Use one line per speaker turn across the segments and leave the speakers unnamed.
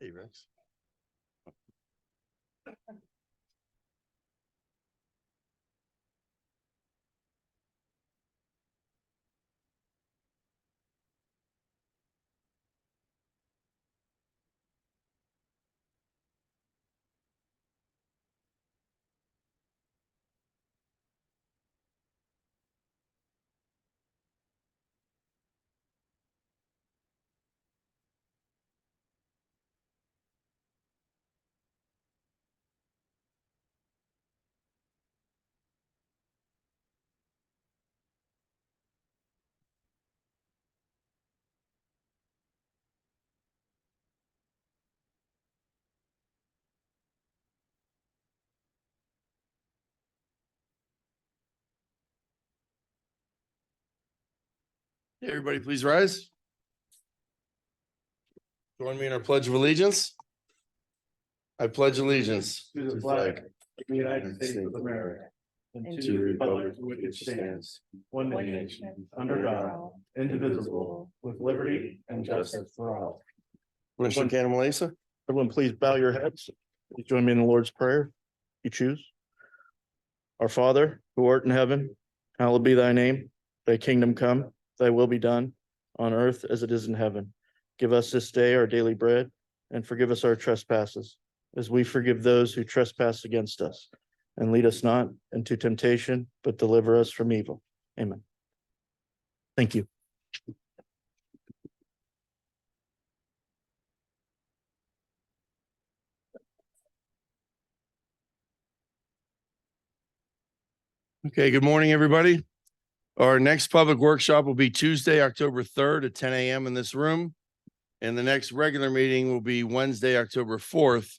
Hey, Rex. Hey, everybody, please rise. Join me in our pledge of allegiance. I pledge allegiance
To the flag of the United States of America. And to the republic for which it stands, one nation, under God, indivisible, with liberty and justice for all.
Commissioner Cantalasa,
Everyone, please bow your heads. Please Join me in the Lord's Prayer. You choose. Our Father, who art in heaven, hallowed be thy name. Thy kingdom come, thy will be done, on earth as it is in heaven. Give us this day our daily bread, and forgive us our trespasses, as we forgive those who trespass against us. And lead us not into temptation, but deliver us from evil. Amen. Thank you.
Okay, good morning, everybody. Our next public workshop will be Tuesday, October third at ten AM in this room. And the next regular meeting will be Wednesday, October fourth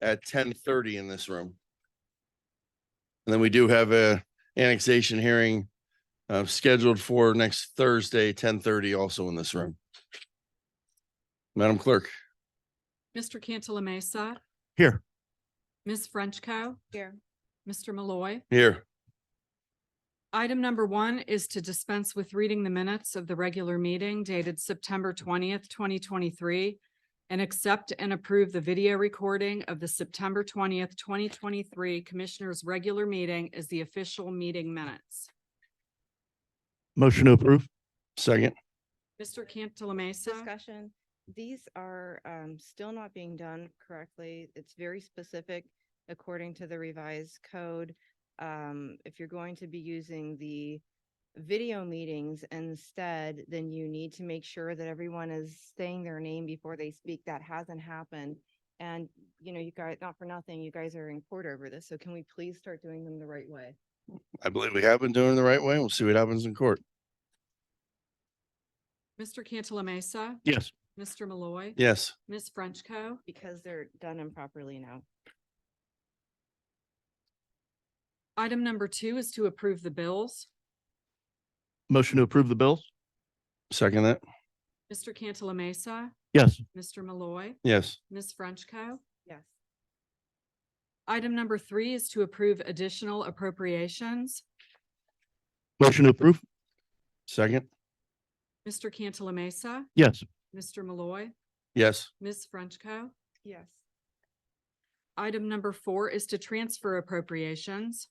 at ten thirty in this room. And then we do have a annexation hearing uh, scheduled for next Thursday, ten thirty, also in this room. Madam Clerk.
Mr. Cantala Mesa.
Here.
Ms. Frenchco. Here. Mr. Malloy.
Here.
Item number one is to dispense with reading the minutes of the regular meeting dated September twentieth, twenty twenty-three, and accept and approve the video recording of the September twentieth, twenty twenty-three Commissioners' Regular Meeting as the official meeting minutes.
Motion to approve.
Second.
Mr. Cantala
Uh-huh.
Mesa.
Discussion, these are um, still not being done correctly. It's very specific according to the revised code. Um, If you're going to be using the video meetings instead, then you need to make sure that everyone is saying their name before they speak. That hasn't happened. And, you know, you guys, not for nothing, you guys are in court over this, so can we please start doing them the right way?
I believe we have been doing it the right way. We'll see what happens in court.
Mr. Cantala Mesa.
Yes.
Mr. Malloy.
Yes.
Ms. Frenchco.
Because they're done improperly now.
Item number two is to approve the bills.
Motion to approve the bills.
Second that.
Mr. Cantala Mesa.
Yes.
Mr. Malloy.
Yes.
Ms. Frenchco.
Yes.
Item number three is to approve additional appropriations.
Motion to approve.
Second.
Mr. Cantala Mesa,
Yes.
Mr. Malloy,
Yes.
Ms. Frenchco.
Yes.
Item number four is to transfer appropriations.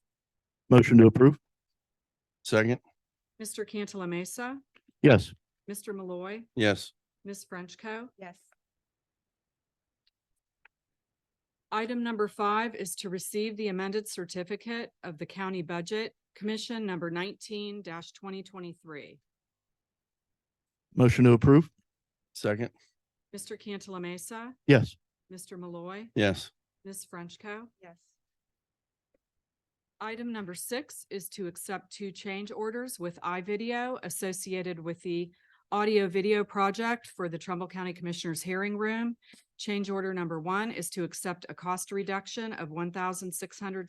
Motion to approve.
Second.
Mr. Cantala Mesa,
Yes.
Mr. Malloy,
Yes.
Ms. Frenchco.
Yes.
Item number five is to receive the amended certificate of the county budget, Commission number nineteen twenty twenty-three.
Motion to approve.
Second.
Mr. Cantala Mesa,
Yes.
Mr. Malloy,
Yes.
Ms. Frenchco.
Yes.
Item number six is to accept two change orders with iVideo associated with the audio video project for the Trumbull County Commissioners Hearing Room. Change order number one is to accept a cost reduction of one thousand six hundred